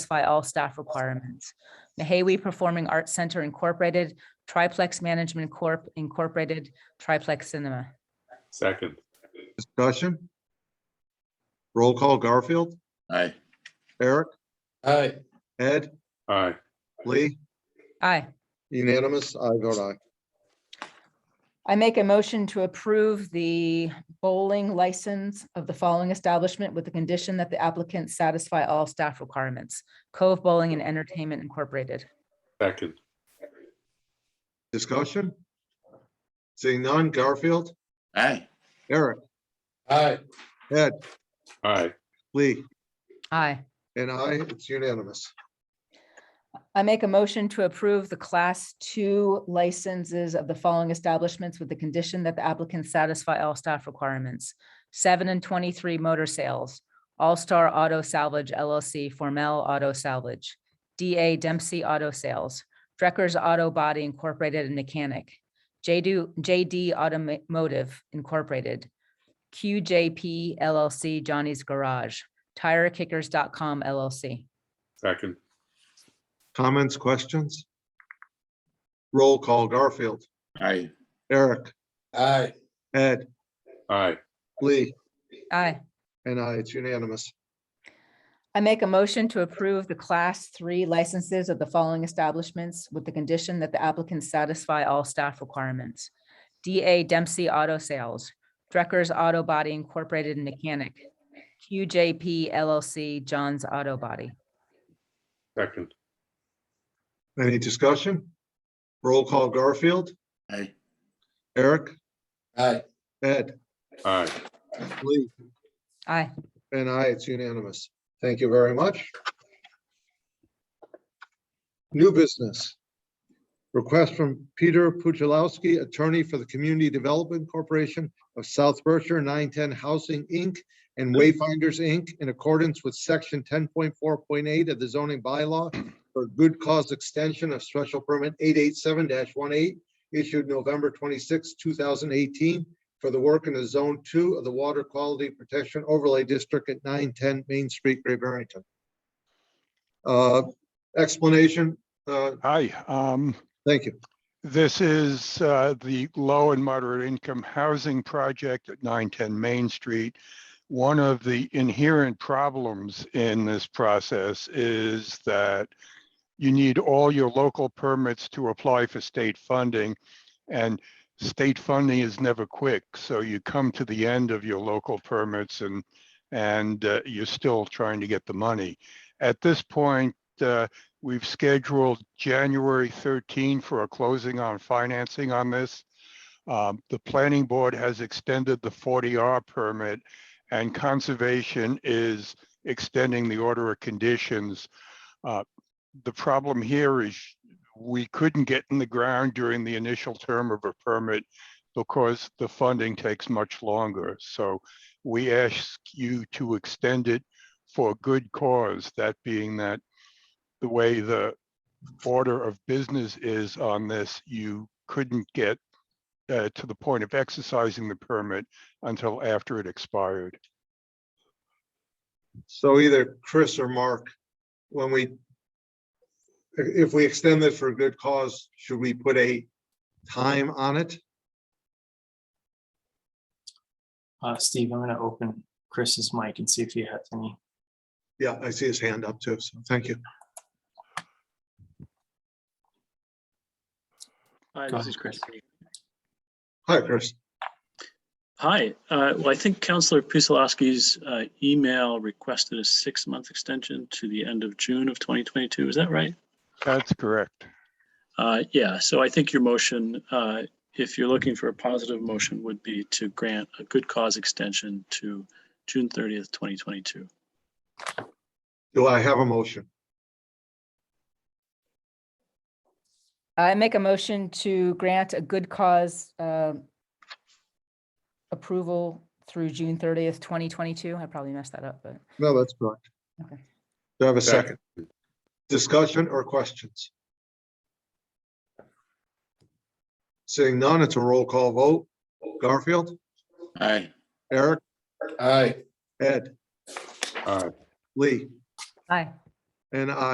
satisfy all staff requirements. Mahawi Performing Arts Center Incorporated, Triplex Management Corp. Incorporated, Triplex Cinema. Second, Discussion? Roll call Garfield, Aye. Eric, Aye. Ed, aye, Lee, Aye. unanimous, I vote aye. I make a motion to approve the bowling license of the following establishment with the condition that the applicants satisfy all staff requirements. Cove Bowling and Entertainment Incorporated. second, Discussion? Seeing none, Garfield, Aye. Eric, Aye. Ed, aye, Lee, Aye. and I, it's unanimous. I make a motion to approve the class two licenses of the following establishments with the condition that the applicants satisfy all staff requirements. Seven and twenty-three motor sales, All Star Auto Salvage LLC, Formel Auto Salvage, DA Dempsey Auto Sales, Drecker's Auto Body Incorporated and Mechanic, JD, JD Automotive Incorporated, QJP LLC, Johnny's Garage, TireKickers.com LLC. second, Comments, questions? Roll call Garfield, Aye. Eric, Aye. Ed, aye, Lee, Aye. and I, it's unanimous. I make a motion to approve the class three licenses of the following establishments with the condition that the applicants satisfy all staff requirements. DA Dempsey Auto Sales, Drecker's Auto Body Incorporated and Mechanic, QJP LLC, John's Auto Body. second, Any discussion? Roll call Garfield, Aye. Eric, Aye. Ed, aye. Lee, Aye. And I, it's unanimous. Thank you very much. New business. Request from Peter Puchalowski, attorney for the Community Development Corporation of South Berkshire, 910 Housing, Inc. and Wayfinders, Inc. in accordance with section 10.4.8 of the zoning bylaw for good cause extension of special permit 887-18 issued November 26, 2018 for the work in the Zone Two of the Water Quality Protection Overlay District at nine ten Main Street, Great Barrington. Uh, explanation, uh, Hi, um, thank you. this is, uh, the low and moderate income housing project at nine ten Main Street. One of the inherent problems in this process is that you need all your local permits to apply for state funding. And state funding is never quick, so you come to the end of your local permits and, and, uh, you're still trying to get the money. At this point, uh, We've scheduled January 13 for a closing on financing on this. Um, The planning board has extended the 40R permit and conservation is extending the order of conditions. Uh, The problem here is we couldn't get in the ground during the initial term of a permit because the funding takes much longer. So we ask you to extend it for good cause, that being that the way the order of business is on this, you couldn't get uh, to the point of exercising the permit until after it expired. So either Chris or Mark, when we if if we extend this for a good cause, should we put a time on it? Uh, Steve, I'm gonna open Chris's mic and see if he has any. Yeah, I see his hand up too, so thank you. Hi, Go this ahead, is Chris. Chris. Hi, Chris. Hi, uh, well, I think Counselor Pusilowski's uh, email requested a six-month extension to the end of June of 2022. Is that right? That's correct. Uh, Yeah, so I think your motion, uh, if you're looking for a positive motion, would be to grant a good cause extension to June 30th, 2022. Do I have a motion? I make a motion to grant a good cause um, approval through June thirtieth, twenty twenty-two. I probably messed that up, but No, that's correct. Okay. Do I have a second? Second. Discussion or questions? Seeing none, it's a roll call vote. Garfield, Aye. Eric, Aye. Ed, Aye, Lee, aye. and I.